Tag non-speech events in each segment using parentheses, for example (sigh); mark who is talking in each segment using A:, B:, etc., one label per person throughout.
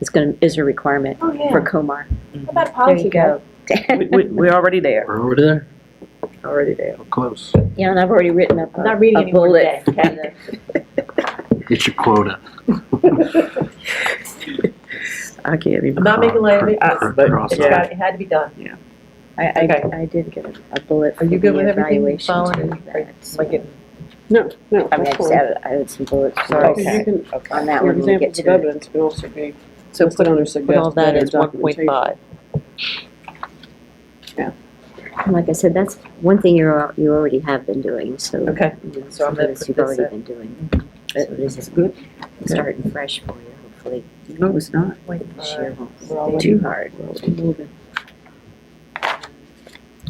A: is going, to is a requirement
B: Oh,
A: for
B: yeah.
A: Comar.
B: How'd that
A: There you
B: policy
A: go. (laughs)
B: go?
C: We, we- we're already there,
D: We're over there?
C: already there.
D: Close.
A: Yeah, and I've already written up
B: I'm not reading
A: a
B: anymore
A: bullet.
B: today.
D: Get your quota.
C: I can't even.
B: I'm not making light of it,
C: Uh,
B: it's-
C: but-
D: Cross
B: it's
D: out.
B: got, it had to be done.
A: I,
B: Okay.
A: I, I did get a- a bullet
B: Are
A: for the
B: you good with everything you
A: evaluation
B: found?
A: too.
B: Or
A: that-
B: am I getting-
E: No,
A: I
E: no,
A: mean, I
E: that's
A: just
E: fine.
A: added, I added some bullets for
B: Sorry.
A: us
E: Because you can-
A: on that
E: Your
A: one when we get
E: examples of
A: to it.
E: evidence can also be
B: So
E: listed
B: put,
E: under
B: put all
E: suggested
B: that
E: better
B: as one point
E: documentation.
B: five.
A: And Like I said, that's one thing you're, al- you already have been doing, so.
B: Okay.
A: you know,
B: So I'm
A: something
B: gonna put
A: You've
B: this
A: already
B: in.
A: been doing. So
C: Uh,
A: this is
C: Good,
A: starting fresh for you, hopefully.
C: no, it's not.
A: This year
B: Point
A: won't
B: Uh, we're all
A: be too hard.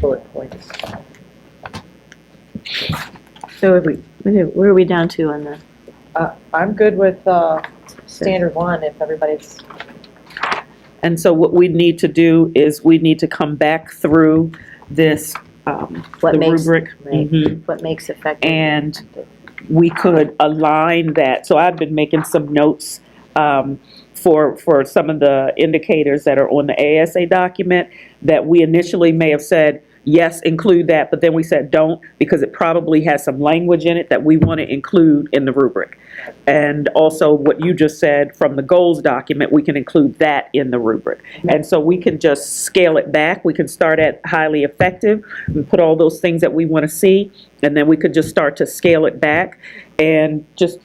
B: bullet points.
A: So we, where are we down to on the?
B: Uh, I'm good with, uh, standard one if everybody's,
C: And so what we need to do is we need to come back through this, um,
A: What
C: the
A: makes,
C: rubric.
A: right.
C: Mhm.
A: what makes effective?
C: And we could align that. So I've been making some notes um, for, for some of the indicators that are on the ASA document that we initially may have said, yes, include that, but then we said don't because it probably has some language in it that we want to include in the rubric. And also what you just said from the goals document, we can include that in the rubric. And so we can just scale it back. We can start at highly effective and put all those things that we want to see. And then we could just start to scale it back. And just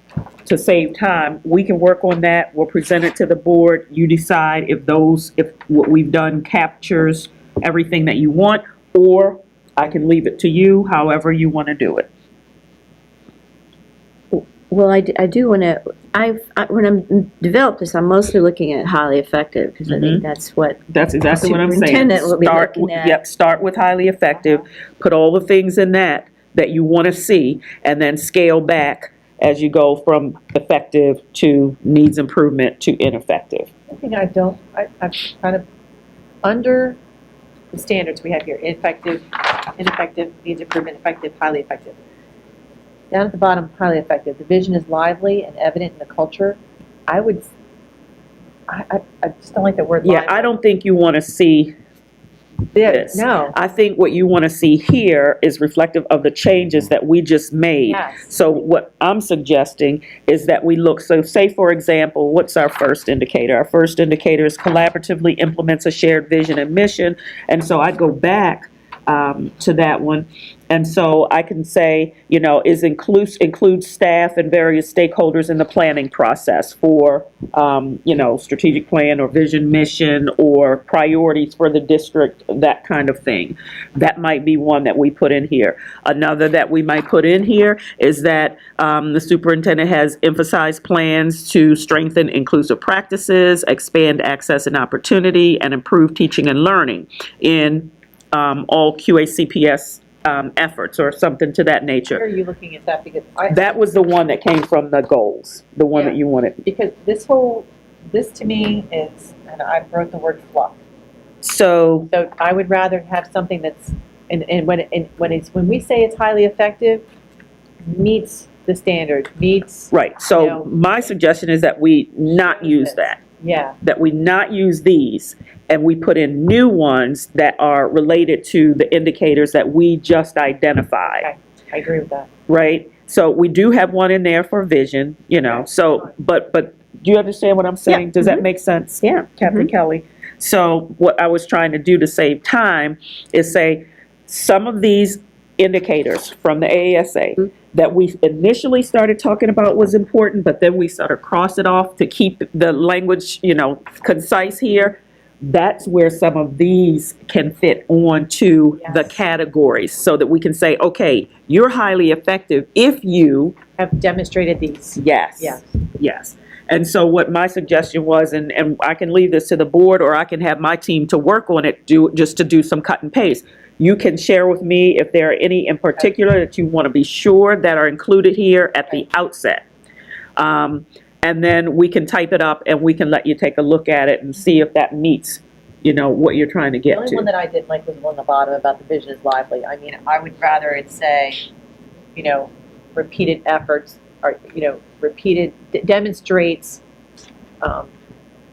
C: to save time, we can work on that. We'll present it to the board. You decide if those, if what we've done captures everything that you want, or I can leave it to you, however you want to do it.
A: Well, I, d- I do want to, I've, I- when I'm developed this, I'm mostly looking at highly effective because I
C: Mm-hmm.
A: think that's what,
C: That's exactly what I'm saying.
A: Superintendent will be
C: Start
A: looking
C: with-
A: at-
C: Yep, start with highly effective, put all the things in that that you want to see, and then scale back as you go from effective to needs improvement to ineffective.
B: I think I don't, I, I'm kind of, under the standards we have here, ineffective, ineffective, needs improvement, effective, highly effective. Down at the bottom, highly effective, the vision is lively and evident in the culture. I would, s- I, I, I just don't like the word
C: Yeah,
B: lively.
C: I don't think you want to see,
B: Yeah,
C: this.
B: No,
C: I think what you want to see here is reflective of the changes that we just made.
B: yes.
C: So what I'm suggesting is that we look, so say, for example, what's our first indicator? Our first indicator is collaboratively implements a shared vision and mission. And so I'd go back um, to that one. And so I can say, you know, is includes, includes staff and various stakeholders in the planning process for, um, you know, strategic plan or vision, mission, or priorities for the district, that kind of thing. That might be one that we put in here. Another that we might put in here is that um, the superintendent has emphasized plans to strengthen inclusive practices, expand access and opportunity, and improve teaching and learning in um, all QACPS um, efforts or something to that
B: Where
C: nature.
B: are you looking at that? Because I,
C: That was the one that came from the goals, the one that you wanted.
B: because this whole, this to me is, and I wrote the word fluff.
C: So
B: So I would rather have something that's, and, and when, and when it's, when we say it's highly effective, meets the standard, meets,
C: Right,
B: No.
C: so my suggestion is that we not use
B: Yes.
C: that,
B: yeah,
C: that we not use these, and we put in new ones that are related to the indicators that we just identified,
B: Okay. I agree with that.
C: right? So we do have one in there for vision, you know, so, but, but, do you understand what I'm saying? Does that make sense?
A: yeah.
C: Captain Kelly. So what I was trying to do to save time is say, some of these indicators from the ASA that we initially started talking about was important, but then we sort of cross it off to keep the language, you know, concise here. That's where some of these can fit onto the
B: Yes.
C: categories, so that we can say, okay, you're highly effective if you,
B: Have demonstrated these,
C: yes.
B: yes.
C: Yes. And so what my suggestion was, and, and I can leave this to the board, or I can have my team to work on it, do, just to do some cut and paste. You can share with me if there are any in particular that you want to be sure that are included here at the outset. Um, and then we can type it up and we can let you take a look at it and see if that meets, you know, what you're trying to
B: The
C: get
B: only one
C: to.
B: that I didn't like was the one on the bottom about the vision is lively. I mean, I would rather it say, you know, repeated efforts, or, you know, repeated, d- demonstrates um,